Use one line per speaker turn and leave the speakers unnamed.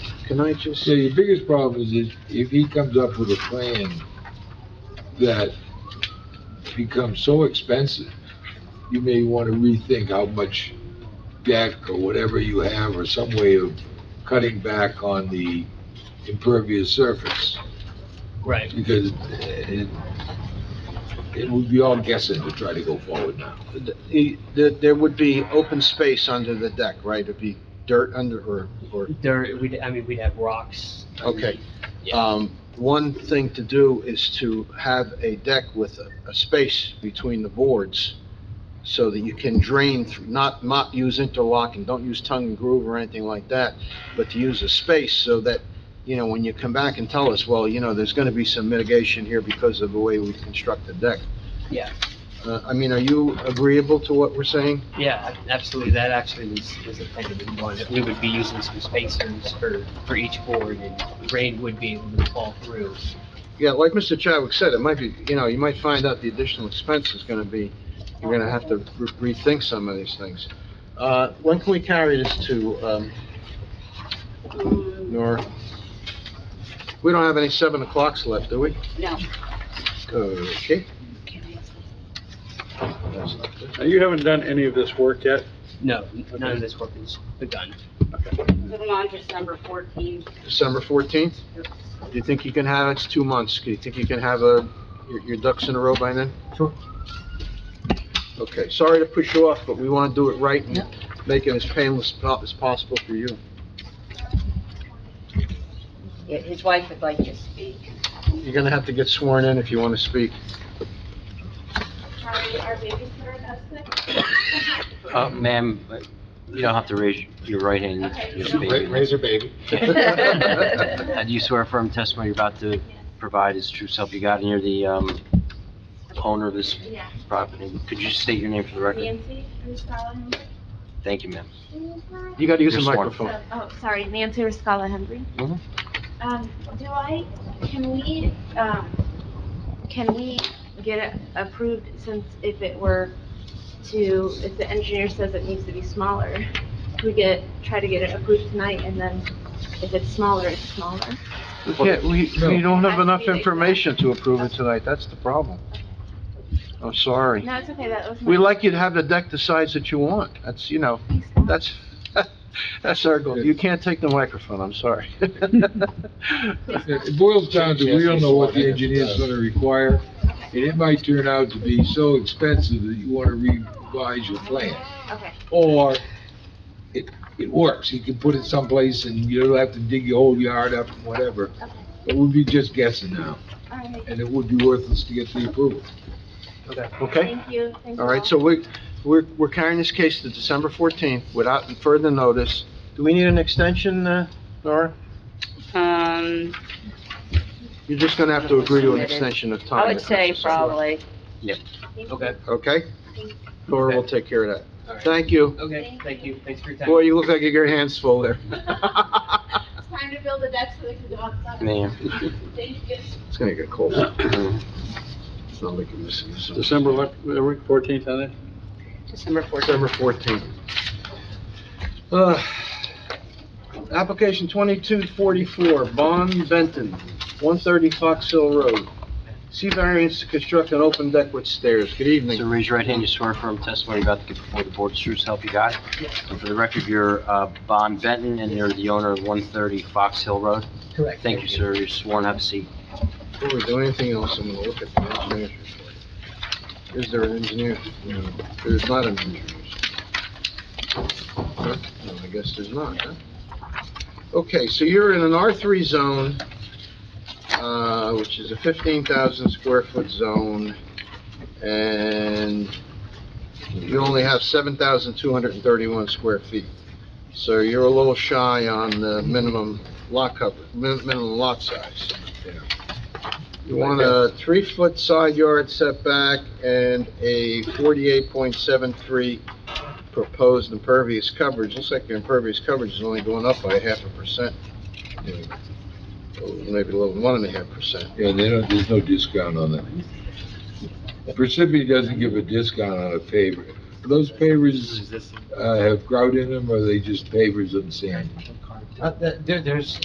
can I just,
So your biggest problem is if, if he comes up with a plan that becomes so expensive, you may want to rethink how much deck or whatever you have, or some way of cutting back on the impervious surface,
Right.
because it, it would be all guessing to try to go forward now.
the- the- there would be open space under the deck, right? It'd be dirt under, or, or
There, we'd, I mean, we'd have rocks.
Okay.
Yeah.
Um, one thing to do is to have a deck with a, a space between the boards so that you can drain through, not, not use interlock and don't use tongue and groove or anything like that, but to use a space so that, you know, when you come back and tell us, well, you know, there's gonna be some mitigation here because of the way we construct the deck.
Yeah.
Uh, I mean, are you agreeable to what we're saying?
Yeah, absolutely. That actually was, was a thing that we wanted. We would be using some spacers for, for each board and rain would be able to fall through.
Yeah, like Mr. Chadwick said, it might be, you know, you might find out the additional expense is gonna be, you're gonna have to re- rethink some of these things. Uh, when can we carry this to, um, Nora? We don't have any seven o'clocks left, do we?
No.
Okay.
Now, you haven't done any of this work yet.
No, none of this work is begun.
Moving on to number fourteen.
December fourteenth?
Yep.
Do you think you can have, it's two months, do you think you can have a, your, your ducks in a row by then?
Sure.
Okay, sorry to push you off, but we wanna do it right and
Yep.
make it as painless po- as possible for you.
Yeah, His wife would like to speak.
You're gonna have to get sworn in if you wanna speak.
Sorry, our babysitter has sick.
Uh, ma'am, you don't have to raise your right hand. you can just
Raise
wave
your baby.
it. Uh, Do you swear firm testimony you're about to provide is true self you got and you're the, um, owner of this property? Could you just state your name for the record?
Nancy, Riscala Henry.
Thank you, ma'am.
You gotta use the
You're sworn.
microphone.
So- Um, Oh, sorry, Nancy Riscala Henry.
Mhm.
Mm-hmm.
Um, do I, can we, um, can we get it approved since if it were to, if the engineer says it needs to be smaller, we get, try to get it approved tonight and then if it's smaller, it's smaller.
We can't, we, we don't have enough
Has to be like that.
information to approve it tonight, that's the problem. I'm sorry.
No, it's okay, that was my.
We'd like you to have the deck the size that you want, that's, you know, that's, that's our goal. You can't take the microphone, I'm sorry.
It boils down to, we don't know what the engineer's gonna require, and it might turn out to be so expensive that you wanna revise your plan.
Okay,
Or it, it works, you can put it someplace and you don't have to dig your whole yard up and whatever.
okay,
But we'd be just guessing now,
all right,
and it would be worthless to get the approval.
Okay?
thank you, thank you.
All right, so we, we're, we're carrying this case to December 14th without further notice. Do we need an extension, uh, Nora?
Um,
You're just gonna have to agree to an extension of time.
I would say probably.
Okay,
Okay? Nora will take care of
all
that.
right.
Thank you.
Okay, thank you. Thanks for your time.
Boy, you look like you got your hands full there.
It's time to build a deck so they can go outside.
Ma'am.
Thank you.
It's gonna get cold.
Mhm.
It's not like you're missing this.
December le- uh, week 14th, I think.
December fourteenth.
December fourteenth. Uh, application twenty-two forty-four, Bon Benton, one thirty Fox Hill Road. See variance to construct an open deck with stairs. Good
So
evening.
raise your right hand, you swear firm testimony you're about to give before the board's true self you got. And for the record, you're, uh, Bon Benton, and you're the owner of one thirty Fox Hill Road.
Correct.
Thank you, sir, you're sworn, have a seat.
Before we do anything else, I'm gonna look at the engineer's report. Is there an engineer? No, there's not an engineer. Huh? No, I guess there's not, huh? Okay, so you're in an R3 zone, uh, which is a 15,000 square foot zone, and you only have 7,231 square feet. So you're a little shy on the minimum lot cover, min- minimum lot size. You want a three-foot side yard setback and a 48.73 proposed impervious coverage. Looks like your impervious coverage is only going up by half a percent. Or Maybe a little, one and a half percent.
And they don't, there's no discount on that. Precipity doesn't give a discount on a paver. Those pavers, uh, have grout in them, or are they just pavers and sand?
Uh, there, there's,